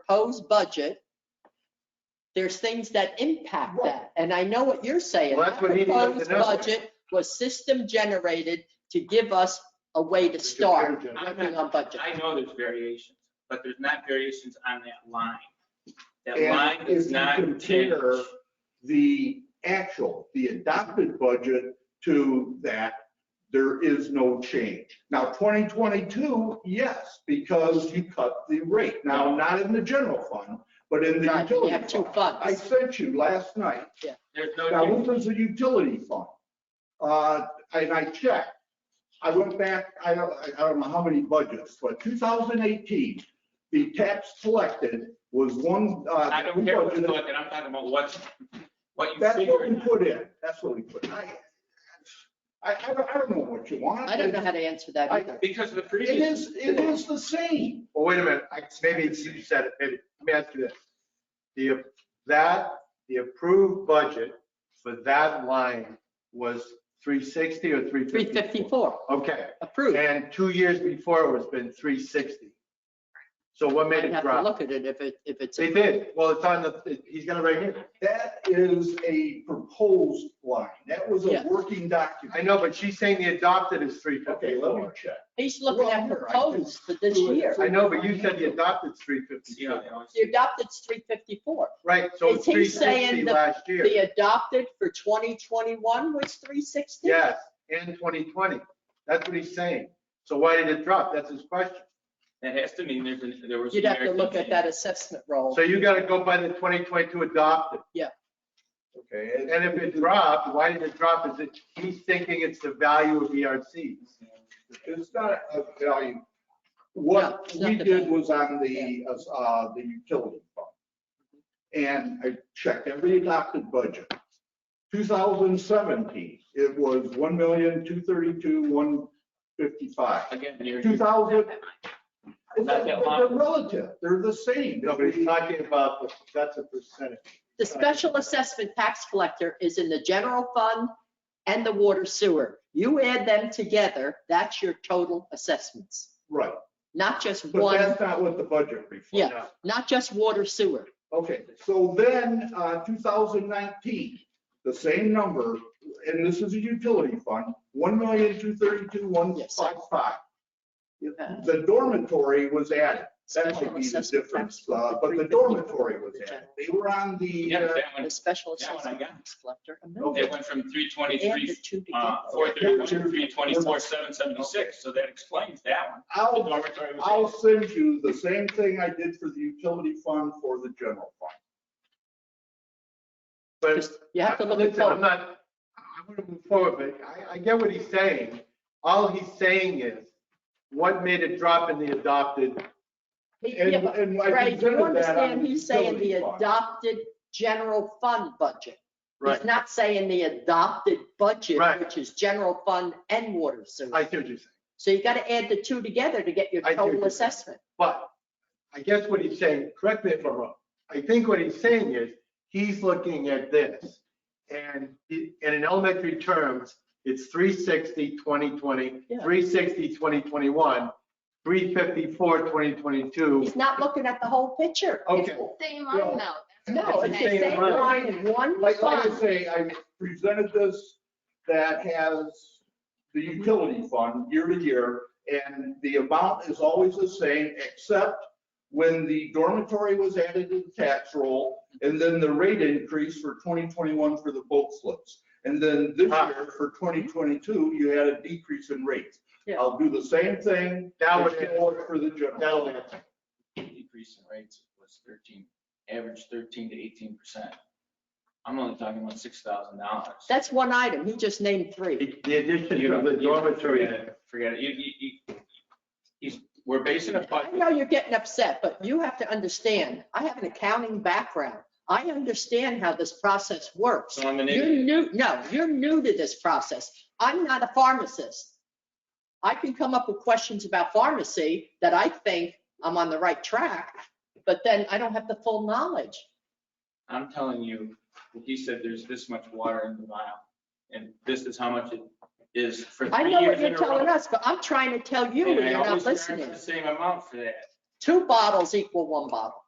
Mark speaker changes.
Speaker 1: proposed budget, there's things that impact that. And I know what you're saying.
Speaker 2: Well, that's what he needed to
Speaker 1: That proposed
Speaker 2: know.
Speaker 1: Budget was system generated to give us a way to start working on budget.
Speaker 3: I know there's variations, but there's not variations on that line. That line
Speaker 2: And if
Speaker 3: is
Speaker 2: you
Speaker 3: not
Speaker 2: compare
Speaker 3: changed.
Speaker 2: the actual, the adopted budget to that, there is no change. Now, 2022, yes, because you cut the rate. Now, not in the general fund, but in the
Speaker 1: Right, we
Speaker 2: utility
Speaker 1: have two
Speaker 2: fund. I
Speaker 1: funds.
Speaker 2: sent you last night
Speaker 3: There's no
Speaker 2: Now,
Speaker 3: change.
Speaker 2: what was the utility fund? Uh, and I checked, I went back, I don't, I don't know how many budgets, but two thousand eighteen, the tax collected was one, uh.
Speaker 3: I don't care what you look at, I'm talking about what's, what you
Speaker 2: That's what we
Speaker 3: figured.
Speaker 2: put in, that's what we put in. I, I, I don't- I don't know what you want.
Speaker 1: I don't know how to answer that
Speaker 2: I-
Speaker 1: either.
Speaker 3: Because of the
Speaker 2: It
Speaker 3: previous.
Speaker 2: is, it is the same.
Speaker 4: Well, wait a minute, I- maybe it's you said it, maybe, let me ask you this. The, that, the approved budget for that line was 360 or 354?
Speaker 1: 354,
Speaker 4: Okay,
Speaker 1: approved.
Speaker 4: and two years before it was been 360. So what made
Speaker 1: I'd
Speaker 4: it
Speaker 1: have to
Speaker 4: drop?
Speaker 1: look at it if it, if it's.
Speaker 4: They did, well, it's on the, he's got it right here.
Speaker 2: That is a proposed line, that was a
Speaker 1: Yeah.
Speaker 2: working
Speaker 4: I
Speaker 2: document.
Speaker 4: know, but she's saying the adopted is
Speaker 2: Okay, let me
Speaker 4: 354.
Speaker 2: check.
Speaker 1: He's looking at
Speaker 2: Well, I think-
Speaker 1: proposed for this year.
Speaker 4: I know, but you said the adopted's 354.
Speaker 3: Yeah, you know, it's-
Speaker 1: The adopted's 354.
Speaker 4: Right, so it's
Speaker 1: Is he saying
Speaker 4: 360
Speaker 1: the-
Speaker 4: last year.
Speaker 1: The adopted for 2021 was 360?
Speaker 4: Yes, and 2020. That's what he's saying. So why did it drop? That's his question.
Speaker 3: That has to mean there's, an- there was.
Speaker 1: You'd have to
Speaker 3: merit
Speaker 1: look at
Speaker 3: change.
Speaker 1: that assessment roll.
Speaker 4: So you got to go by the 2022 adopted.
Speaker 2: Okay.
Speaker 4: And if it dropped, why did it drop? Is it, he's thinking it's the value of E ERCs.
Speaker 2: It's not a value. What
Speaker 1: it's not
Speaker 2: we
Speaker 1: the
Speaker 2: did
Speaker 1: value.
Speaker 2: was on the, uh, the utility fund. And I checked every adopted budget. 2017, it was 1,232,155. one fifty-five.
Speaker 3: Again, you're.
Speaker 2: 2000.
Speaker 3: Not
Speaker 2: They're
Speaker 3: that long.
Speaker 2: relative, they're the same.
Speaker 4: No, but he's talking about, the- that's a percentage.
Speaker 1: The special assessment tax collector is in the general fund and the water sewer. You add them together, that's your total assessments,
Speaker 2: Right,
Speaker 1: not just
Speaker 2: but
Speaker 1: one,
Speaker 2: that's not what the budget reflects.
Speaker 1: Yeah.
Speaker 4: No.
Speaker 1: not just water sewer.
Speaker 2: Okay, so then, uh, 2019, the same number, and this is a utility fund, 1,232,155.
Speaker 1: You have
Speaker 2: The dormitory was added. That
Speaker 1: special
Speaker 2: might be the
Speaker 1: assessment
Speaker 2: difference,
Speaker 1: tax
Speaker 2: uh,
Speaker 1: collector
Speaker 2: but the
Speaker 1: 354
Speaker 2: dormitory was added. They were on the,
Speaker 3: Yeah,
Speaker 2: uh,
Speaker 3: that one,
Speaker 1: The special
Speaker 3: That one I
Speaker 1: assessment
Speaker 3: got.
Speaker 1: tax collector. and then
Speaker 3: it went from three
Speaker 1: Add
Speaker 3: twenty-three,
Speaker 1: the two
Speaker 3: uh,
Speaker 1: together.
Speaker 3: four thirty-one, three twenty-four, seven seventy-six, so that explains that one. The
Speaker 2: I'll,
Speaker 3: dormitory was.
Speaker 2: I'll send you the same thing I did for the utility fund for the general fund.
Speaker 4: But
Speaker 1: Just- You have to look at
Speaker 4: Listen, I'm
Speaker 1: both.
Speaker 4: not, I want to move forward, but I, I get what he's saying. All he's saying is, what made it drop in the adopted?
Speaker 1: He-
Speaker 2: And,
Speaker 1: yeah, but
Speaker 2: and I
Speaker 1: Ray, do you
Speaker 2: considered that on
Speaker 1: understand,
Speaker 2: the
Speaker 1: he's saying the
Speaker 2: utility fund.
Speaker 1: adopted general fund budget.
Speaker 4: Right,
Speaker 1: He's not saying the adopted budget,
Speaker 4: Right.
Speaker 1: which is general fund and water sewer.
Speaker 4: I see what you're saying.
Speaker 1: So you got to add the two together to get your
Speaker 4: I do
Speaker 1: total
Speaker 4: agree.
Speaker 1: assessment.
Speaker 4: But I guess what he's saying, correct me if I'm wrong, I think what he's saying is, he's looking at this. And he- and in elementary terms, it's 360, 2020,
Speaker 1: Yeah.
Speaker 4: 360, 2021, 354, 2022.
Speaker 1: He's not looking at the whole picture.
Speaker 4: Okay.
Speaker 5: Same
Speaker 2: Well,
Speaker 5: line though.
Speaker 1: No, it's
Speaker 4: It's the
Speaker 1: the
Speaker 4: same
Speaker 1: same
Speaker 4: line.
Speaker 1: line in one
Speaker 2: Like, like I
Speaker 1: fund.
Speaker 2: say, I presented this that has the utility fund year to year, and the amount is always the same, except when the dormitory was added to the tax roll, and then the rate increase for 2021 for the boat slips. And then this
Speaker 4: Ah.
Speaker 2: year, for 2022, you had a decrease in rates.
Speaker 1: Yeah.
Speaker 2: I'll do the same thing.
Speaker 4: That would,
Speaker 2: Just do it For the general.
Speaker 4: that'll answer.
Speaker 3: Decrease in rates was thirteen, average thirteen to eighteen percent. I'm only talking about six thousand dollars.
Speaker 1: That's one item. He just named three.
Speaker 4: The the addition
Speaker 3: You
Speaker 4: of the
Speaker 3: don't- you-
Speaker 4: dormitory.
Speaker 3: Forget it, you, you, you, he's, we're basing a
Speaker 1: I
Speaker 3: budget,
Speaker 1: know you're getting upset, but you have to understand, I have an accounting background. I understand how this process works.
Speaker 3: so I'm an
Speaker 1: You're
Speaker 3: idiot.
Speaker 1: new, no, you're new to this process. I'm not a pharmacist. I can come up with questions about pharmacy that I think I'm on the right track, but then I don't have the full knowledge.
Speaker 3: I'm telling you, he said there's this much water in the vial, and this is how much it is for
Speaker 1: I
Speaker 3: three
Speaker 1: know
Speaker 3: years
Speaker 1: what
Speaker 3: in
Speaker 1: you're
Speaker 3: a row.
Speaker 1: telling us, but I'm trying to tell you
Speaker 3: And
Speaker 1: and
Speaker 3: I
Speaker 1: you're not
Speaker 3: always charge
Speaker 1: listening.
Speaker 3: the Same amount for that.
Speaker 1: Two bottles equal one bottle.